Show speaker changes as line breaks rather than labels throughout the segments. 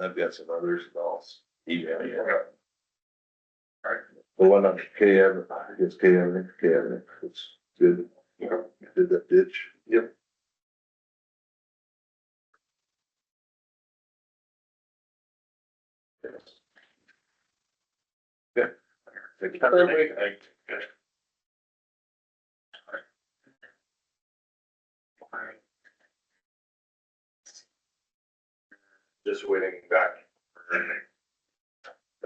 I've got some others and I'll email you. The one on KM, I guess KM, KM, it's good. Yeah. Did that ditch. Yep. Good. Perfect.
just waiting back.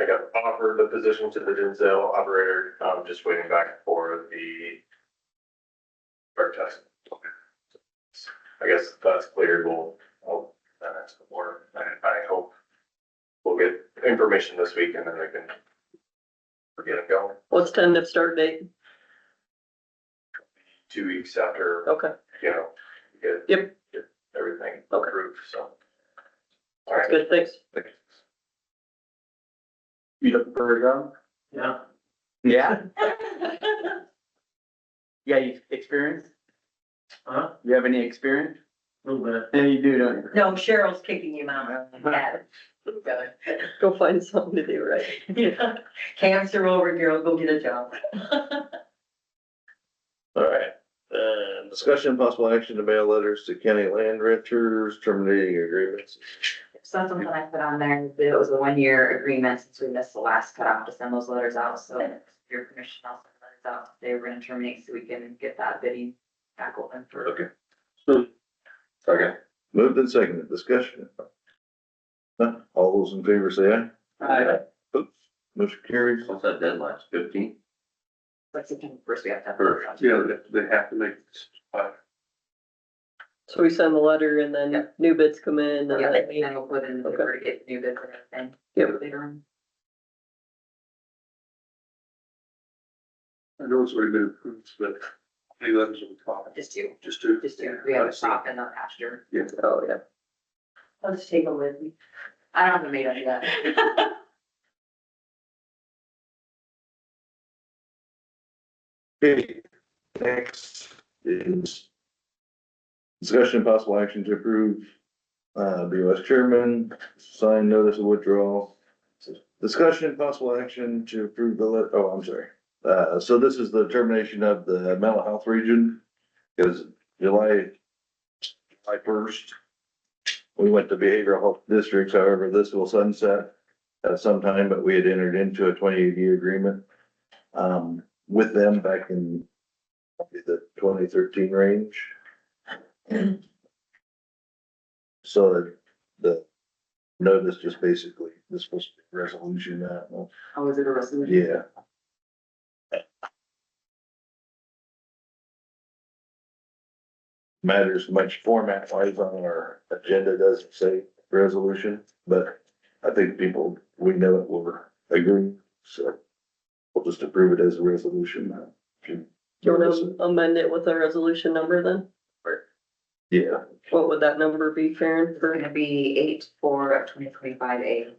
I got offered the position to the Denzel operator, um, just waiting back for the drug test. I guess if that's cleared, we'll, I'll, uh, ask the board, I, I hope we'll get information this week and then they can forget it going,
What's tentative start date?
two weeks after,
Okay,
you know, get
Yep.
get everything
Okay.
approved, so. All
that's
right,
good, thanks.
You looking for a job?
Yeah.
Yeah. Yeah, you experience?
Huh?
You have any experience?
Little bit.
Yeah, you do, don't you?
No, Oh, Cheryl's kicking him out. Yeah.
Uh-huh. Go find something to do, right?
Cancer over, girl, go get a job.
All right, uh, discussion of possible action to mail letters to county land renters terminating agreements.
So that's something I put on there, that it was a one-year agreement since we missed the last cutoff to send those letters out, so with your permission, I'll send letters out. They were gonna terminate so we can get that bidding back open for.
Okay.
okay,
Moved and seconded, discussion. Huh, All those in favor say aye. Oops, motion carries.
What's that deadline, fifteen?
Like September first, we have to have.
Yeah, they, they have to make. this by-
So we send the letter and then
Yep.
new bids come in
Yeah,
and
and
then.
then we'll put in,
Okay.
the get new bids and
Yep.
everything. Later on.
I know it's already been approved, but they let us on top,
Just two,
just to.
just two, we have a crop and a pasture.
Oh, yeah.
I'll just take a with me.
I don't have a maid on yet.
Okay, next is discussion of possible action to approve, uh, BOS chairman, sign notice of withdrawal. Discussion and possible action to approve the, let- oh, I'm sorry. Uh, so this is the termination of the mental health region, because July, July first, we went to behavioral health districts, however, this will sunset at some time, but we had entered into a twenty-eight year agreement. Um, with them back in probably the twenty thirteen range. So the- the notice just basically, this was a resolution that, well,
Oh, is it a resolution?
yeah. Matters much format wise on our agenda doesn't say resolution, but I think people, we know it, we're agreeing, so we'll just approve it as a resolution. Do
Do you wanna amend it with a resolution number then?
Yeah,
What would that number be, Farron,
It's
for,
gonna be eight four of twenty twenty-five A.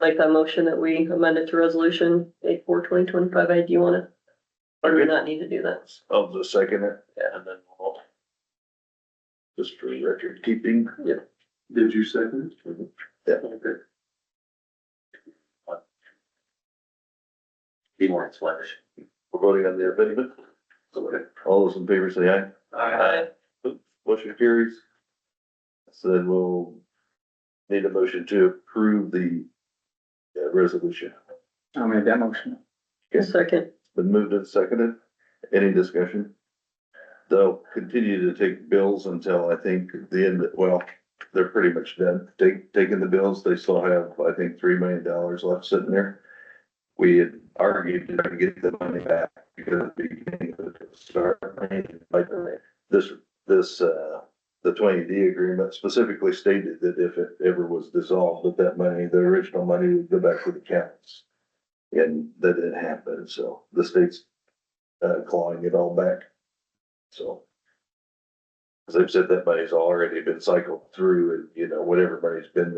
like that motion that we amended to resolution eight four twenty twenty-five, I, do you wanna? Or do we
Okay.
not need to do that?
I'll just second it,
Yeah.
and then we'll just for record keeping. Mm-hmm.
Did you second it?
Yeah.
Okay.
be more explanation.
We're voting on the amendment.
Okay.
All those in favor say aye. Motion carries. So then we'll need a motion to approve the uh, resolution.
I'll make that motion.
Second,
Been moved and seconded. Any discussion? They'll continue to take bills until I think the end, well, they're pretty much done. Take, taking the bills, they still have, I think, three million dollars left sitting there. We had argued to try to get the money back because at the beginning of the start, like this, this, uh, the twenty D agreement specifically stated that if it ever was dissolved, that that money, the original money would go back to the counties. And that didn't happen, so the state's uh, clawing it all back, so. As I've said, that money's already been cycled through and, you know, whatever money's been